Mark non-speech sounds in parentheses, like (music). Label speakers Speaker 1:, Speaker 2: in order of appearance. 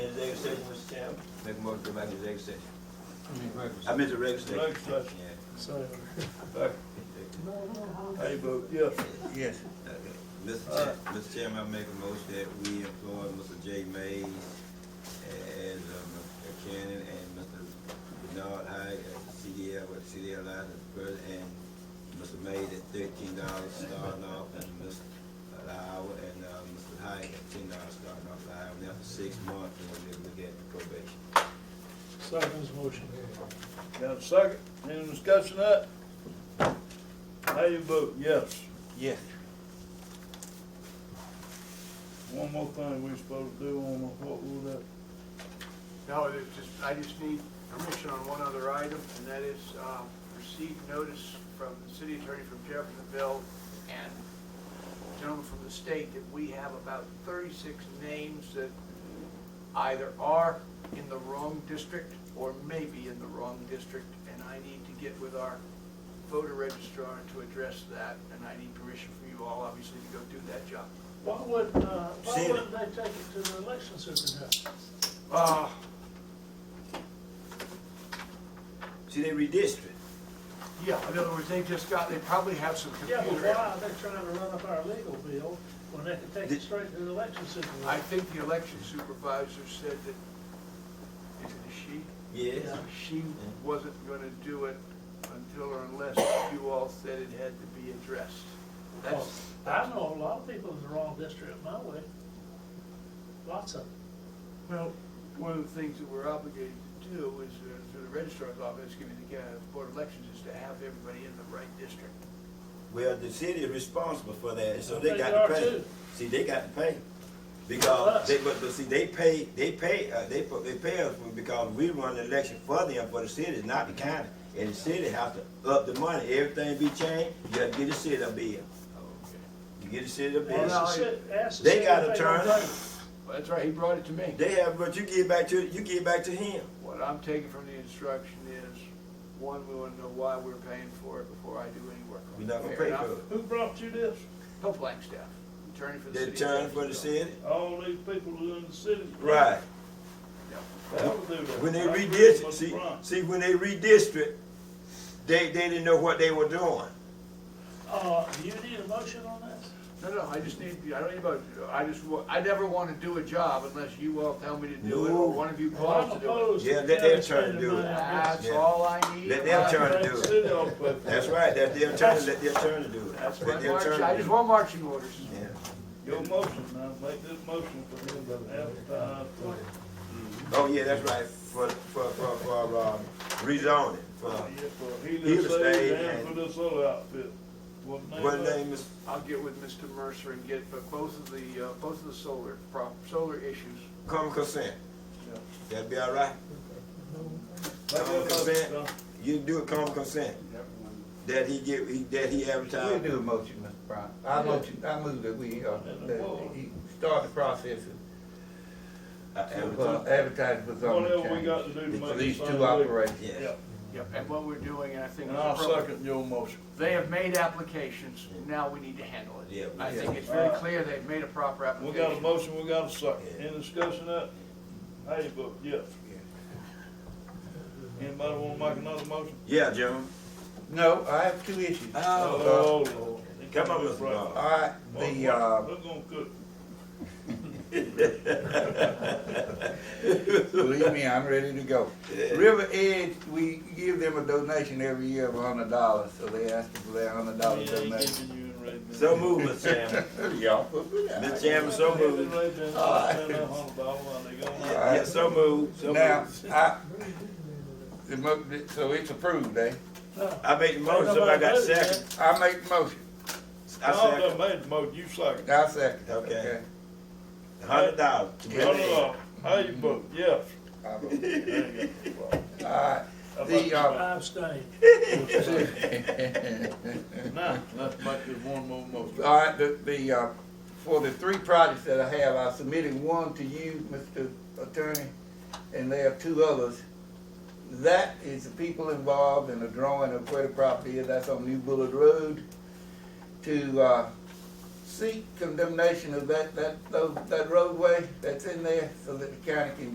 Speaker 1: uh, make a motion to go back to executive session. I
Speaker 2: Yes.
Speaker 1: meant the regular session.
Speaker 3: Regular session.
Speaker 1: Yeah.
Speaker 4: Sorry.
Speaker 3: Hey, vote yes.
Speaker 1: Yes. Okay. Mr. Chair- Mr. Chairman, I make a motion that we employ Mr. J. Mays as um, a canon and Mr. Bernard Hyde as CDL, with CDL line as president, and Mr. Mays at thirteen dollars starting off, and Mr. Lau and uh, Mr. Hyde at ten dollars starting off the hour, and after six months, we'll look at probation.
Speaker 4: Second's motion.
Speaker 3: Got a second? Any discussion of that? How you vote? Yes.
Speaker 2: Yes.
Speaker 3: One more thing we supposed to do on the, what was that?
Speaker 5: No, it is just, I just need permission on one other item, and that is, um, received notice from the city attorney from Jeffersonville and gentleman from the state that we have about thirty-six names that either are in the wrong district or may be in the wrong district, and I need to get with our voter registrar to address that, and I need permission from you all, obviously, to go do that job.
Speaker 4: Why wouldn't, uh, why
Speaker 2: Send it.
Speaker 4: wouldn't they take it to the election superintendent?
Speaker 5: Uh,
Speaker 1: See, they redistrict.
Speaker 5: yeah, in other words, they just got, they probably have some
Speaker 4: Yeah,
Speaker 5: computer.
Speaker 4: but why are they trying to run up our legal bill when they can take it straight to the election
Speaker 5: I
Speaker 4: superintendent?
Speaker 5: think the election supervisor said that, is it a she?
Speaker 1: Yes.
Speaker 5: She wasn't gonna do it until or unless you all said it had to be addressed.
Speaker 4: Because
Speaker 5: That's,
Speaker 4: I know a lot of people in the wrong district my way. Lots of them.
Speaker 5: well, one of the things that we're obligated to do is, uh, through the registrar's office, giving the uh, board of elections, is to have everybody in the right district.
Speaker 1: Well, the city is responsible for that, so
Speaker 4: They
Speaker 1: they got to
Speaker 4: are
Speaker 1: pay.
Speaker 4: too.
Speaker 1: See, they got to pay.
Speaker 4: Us.
Speaker 1: Because they, but, but see, they pay, they pay, uh, they, pu- they pay us for- because we run the election for them, for the city, not the county. And the city have to up the money, everything be changed, you gotta get the city a bill. You get the city a
Speaker 5: Well,
Speaker 1: bill.
Speaker 5: now-
Speaker 4: Ask the ci- ask the
Speaker 1: They
Speaker 4: city
Speaker 1: got
Speaker 4: if
Speaker 1: a
Speaker 4: they gonna
Speaker 1: turn.
Speaker 4: take it.
Speaker 5: Well, that's right, he brought it to me.
Speaker 1: They have, but you give back to, you give back to him.
Speaker 5: What I'm taking from the instruction is, one, we wanna know why we're paying for it before I do any work. on
Speaker 1: We're not gonna
Speaker 5: Fair
Speaker 1: pay
Speaker 5: enough.
Speaker 1: for it.
Speaker 3: Who brought you this?
Speaker 5: Bill Blankstaff, attorney for the
Speaker 1: They
Speaker 5: city. of
Speaker 1: turn for the
Speaker 5: Jacksonville.
Speaker 1: city.
Speaker 3: All these people who in the city.
Speaker 1: Right.
Speaker 3: That'll do that.
Speaker 1: When they
Speaker 3: I agree
Speaker 1: redistrict,
Speaker 3: with
Speaker 1: see,
Speaker 3: Brian.
Speaker 1: see, when they redistrict, they, they didn't know what they were doing.
Speaker 4: Uh, do you need a motion on this?
Speaker 5: No, no, I just need, I don't need, about- I just, wa- I never want to do a job unless you all tell me to do it,
Speaker 1: No.
Speaker 5: or one of you
Speaker 4: Well,
Speaker 5: calls to
Speaker 4: I'm
Speaker 5: do it.
Speaker 4: opposed to
Speaker 1: Yeah, let them
Speaker 4: county
Speaker 1: try to
Speaker 4: spending
Speaker 1: do it.
Speaker 4: money on this.
Speaker 5: That's all I need.
Speaker 1: Let them
Speaker 5: about-
Speaker 1: turn it.
Speaker 3: Take the city off with
Speaker 1: (laughs)
Speaker 3: it.
Speaker 1: That's right, that's their turn, let their turn to do it.
Speaker 5: That's
Speaker 1: Let
Speaker 5: my
Speaker 1: their
Speaker 5: march,
Speaker 1: turn
Speaker 5: I
Speaker 1: to
Speaker 5: just
Speaker 1: do it.
Speaker 5: want marching orders.
Speaker 1: Yeah.
Speaker 3: Your motion, now, make this motion for him to advertise. for-
Speaker 1: Oh, yeah, that's right, for, for, for, for, um, rezoning, for,
Speaker 3: Yeah, for Healy
Speaker 1: Healy Stage
Speaker 3: Stage and
Speaker 1: and-
Speaker 3: for this other outfit. What name?
Speaker 1: what
Speaker 3: of-
Speaker 1: name is,
Speaker 5: I'll get with Mr. Mercer and get, but both of the, uh, both of the solar, prop, solar issues.
Speaker 1: common consent,
Speaker 3: Yeah.
Speaker 1: that'd be all right?
Speaker 3: Make
Speaker 1: Common
Speaker 3: that motion,
Speaker 1: consent,
Speaker 3: Tom.
Speaker 1: you do it common consent, that he give, he- that he
Speaker 2: We'll
Speaker 1: advertise. Uh,
Speaker 2: do a motion, Mr. Brown. I motion, I move that we, uh, that he start the process of
Speaker 1: I
Speaker 2: uh,
Speaker 1: advertise.
Speaker 2: advertising for zoning
Speaker 3: Whatever we
Speaker 2: change.
Speaker 3: got to do to make.
Speaker 2: For these
Speaker 3: it
Speaker 2: two
Speaker 3: sound good.
Speaker 2: operations.
Speaker 1: Yeah,
Speaker 5: Yep. And what we're doing, and I think.
Speaker 3: And
Speaker 5: it's
Speaker 3: I'll
Speaker 5: appropriate.
Speaker 3: second your motion.
Speaker 5: They have made applications, now we need to handle it.
Speaker 1: Yeah, we-
Speaker 5: I think
Speaker 2: Yeah.
Speaker 5: it's very
Speaker 3: Alright.
Speaker 5: clear they've made a proper
Speaker 3: We
Speaker 5: application.
Speaker 3: got a motion, we got a second. Any discussion of that? How you vote? Yes. Anybody wanna make another motion?
Speaker 1: yeah, gentlemen.
Speaker 5: (laughs)
Speaker 1: (laughs)
Speaker 2: No, I have two issues. Uh,
Speaker 3: Oh, Lord.
Speaker 1: Come on, Mr. Brown.
Speaker 2: All right, the, uh,
Speaker 3: We're gonna cook.
Speaker 2: Believe me, I'm ready to go. River Edge, we give them a donation every year of a hundred dollars, so they asked us for their hundred
Speaker 3: Yeah,
Speaker 2: dollar
Speaker 3: he
Speaker 2: donation.
Speaker 3: giving you and Ray Ben.
Speaker 1: So move,
Speaker 2: (laughs)
Speaker 1: Mr. Chairman,
Speaker 2: Y'all put me down.
Speaker 1: Mr. Chairman, so
Speaker 3: Him and
Speaker 1: move.
Speaker 3: Ray Ben,
Speaker 2: All right.
Speaker 3: spend that hundred dollars while they gone.
Speaker 1: Yeah, yeah, so move, so
Speaker 2: Now,
Speaker 1: move.
Speaker 2: I, the mo- so it's approved, eh?
Speaker 4: No.
Speaker 1: I make the motion, somebody got
Speaker 4: Nobody voted,
Speaker 1: second,
Speaker 2: I make the motion,
Speaker 1: I
Speaker 3: Tom done
Speaker 1: second,
Speaker 3: made the motion, you second.
Speaker 2: I second.
Speaker 1: Okay. hundred dollars.
Speaker 3: Hold it up. How you vote? Yes.
Speaker 2: I vote.
Speaker 3: There you go.
Speaker 2: All right,
Speaker 3: How about
Speaker 2: the,
Speaker 3: you,
Speaker 2: uh,
Speaker 4: I abstain.
Speaker 3: Mike? Now, let's make this one more motion.
Speaker 2: All right, the, the, uh, for the three projects that I have, I submitted one to you, Mr. Attorney, and there are two others. That is the people involved in the drawing of where the property is, that's on New Bullard Road. To, uh, seek condemnation of that, that, those- that roadway that's in there so that the county can